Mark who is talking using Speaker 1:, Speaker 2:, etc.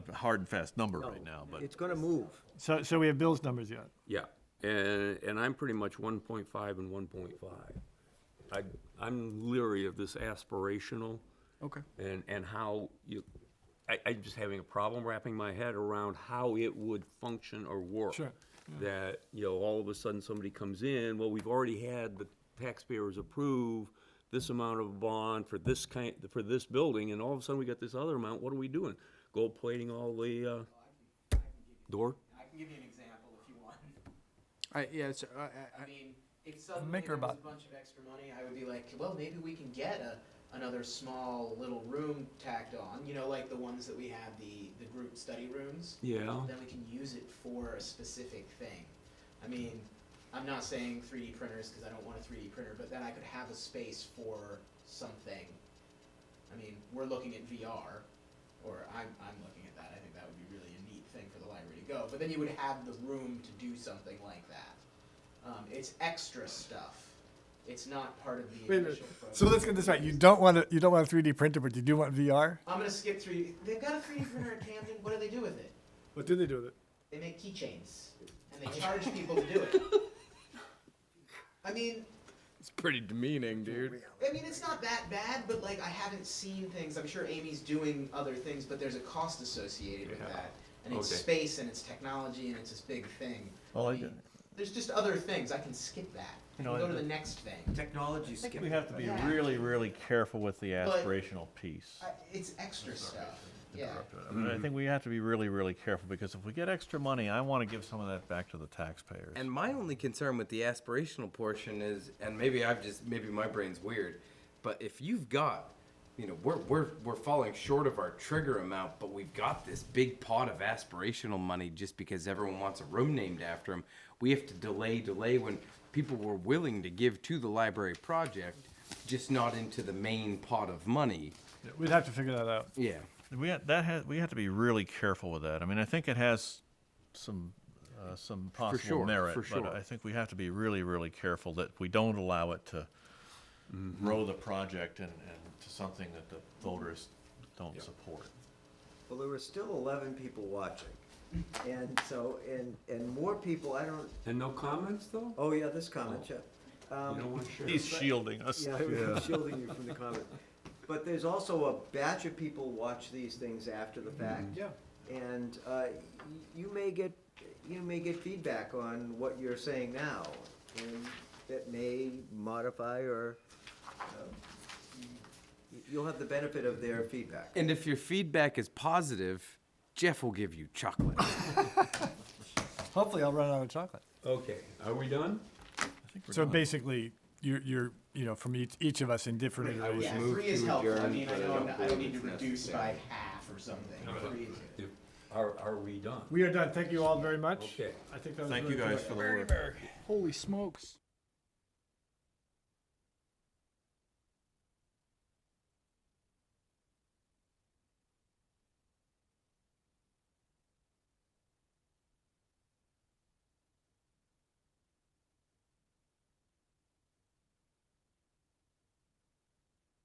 Speaker 1: hard and fast number right now, but
Speaker 2: It's gonna move.
Speaker 3: So, so we have Bill's numbers yet.
Speaker 4: Yeah, and, and I'm pretty much one point five and one point five. I, I'm leery of this aspirational.
Speaker 1: Okay.
Speaker 4: And, and how you, I, I'm just having a problem wrapping my head around how it would function or work.
Speaker 3: Sure,
Speaker 4: That, you know, all of a sudden somebody comes in, well, we've already had the taxpayers approve this amount of bond for this kind, for this building, and all of a sudden we got this other amount, what are we doing? Gold plating all the, uh, door?
Speaker 5: I can give you an example if you want.
Speaker 6: I, yeah, it's, I, I,
Speaker 5: I
Speaker 6: I-
Speaker 5: mean, if suddenly
Speaker 3: Make her
Speaker 5: there was
Speaker 3: bu-
Speaker 5: a bunch of extra money, I would be like, well, maybe we can get a, another small little room tacked on, you know, like the ones that we have, the, the group study rooms.
Speaker 4: Yeah.
Speaker 5: Then we can use it for a specific thing. I mean, I'm not saying 3D printers because I don't want a 3D printer, but then I could have a space for something. I mean, we're looking at VR, or I'm, I'm looking at that. I think that would be really a neat thing for the library to go. But then you would have the room to do something like that. Um, it's extra stuff. It's not part of the
Speaker 3: Wait a minute.
Speaker 5: initial program.
Speaker 3: So let's get this right. You don't want to, you don't want a three D printer, but you do want VR?
Speaker 5: I'm gonna skip through. They've got a 3D printer in Camden. What do they do with it?
Speaker 3: What do they do with it?
Speaker 5: They make keychains, and they charge people to do it. I mean,
Speaker 6: it's pretty demeaning, dude.
Speaker 5: I mean, it's not that bad, but like I haven't seen things. I'm sure Amy's doing other things, but there's a cost associated with
Speaker 4: Yeah.
Speaker 5: that, and it's
Speaker 4: Okay.
Speaker 5: space and it's technology and it's this big thing.
Speaker 1: Well, Oh, I
Speaker 5: mean,
Speaker 1: get it.
Speaker 5: There's just other things. I can skip that. I
Speaker 3: No,
Speaker 5: can go
Speaker 3: I-
Speaker 5: to the next thing.
Speaker 2: Technology
Speaker 1: I think
Speaker 2: skip.
Speaker 1: we have to be
Speaker 5: Yeah.
Speaker 1: really, really careful with the
Speaker 5: But-
Speaker 1: aspirational piece.
Speaker 5: I, it's extra stuff. Yeah.
Speaker 1: interrupted. I mean, I think we have to be really, really careful, because if we get extra money, I want to give some of that back to the taxpayers.
Speaker 6: And my only concern with the aspirational portion is, and maybe I've just, maybe my brain's weird, but if you've got, you know, we're, we're, we're falling short of our trigger amount, but we've got this big pot of aspirational money just because everyone wants a room named after them. We have to delay, delay when people were willing to give to the library project, just not into the main pot of money.
Speaker 3: We'd have to figure that out.
Speaker 6: Yeah.
Speaker 1: We ha that has, we have to be really careful with that. I mean, I think it has some, uh, some possible
Speaker 6: sure,
Speaker 1: merit,
Speaker 6: for
Speaker 1: but
Speaker 6: sure.
Speaker 1: I think we have to be really, really careful that we don't allow it to
Speaker 6: Mm-hmm.
Speaker 1: grow the project and, and to something that the voters don't support.
Speaker 2: Well, there were still eleven people watching. And so, and, and more people, I don't,
Speaker 4: And no comments, though?
Speaker 2: oh yeah, this comment, yeah.
Speaker 4: You
Speaker 2: Um,
Speaker 4: don't want to share?
Speaker 1: He's shielding us.
Speaker 2: Yeah, I'm shielding you from the comment. But there's also a batch of people watch these things after the fact. Yeah. And uh, y- you may get, you may get feedback on what you're saying now, and that may modify or, um, y- you'll have the benefit of their feedback.
Speaker 6: And if your feedback is positive, Jeff will give you chocolate.
Speaker 3: Hopefully I'll run out of chocolate.
Speaker 4: Okay, are we done?
Speaker 3: So basically, you're, you're, you know, from each, each of us in different iterations.
Speaker 5: Yeah,
Speaker 6: move
Speaker 5: three is
Speaker 6: to
Speaker 5: helpful. I
Speaker 6: adjourn,
Speaker 5: mean, I
Speaker 6: but I
Speaker 5: know I'm
Speaker 6: don't
Speaker 5: not- I don't
Speaker 6: believe
Speaker 5: need to
Speaker 6: it's
Speaker 5: reduce by
Speaker 6: necessary.
Speaker 5: half or something.
Speaker 4: but
Speaker 5: Three is good.
Speaker 4: If- Are, are we done?
Speaker 3: We are done. Thank you all very much.
Speaker 4: Okay.
Speaker 3: I think that was
Speaker 1: Thank you
Speaker 3: really
Speaker 1: guys
Speaker 3: good.
Speaker 1: for the work.
Speaker 7: Holy smokes.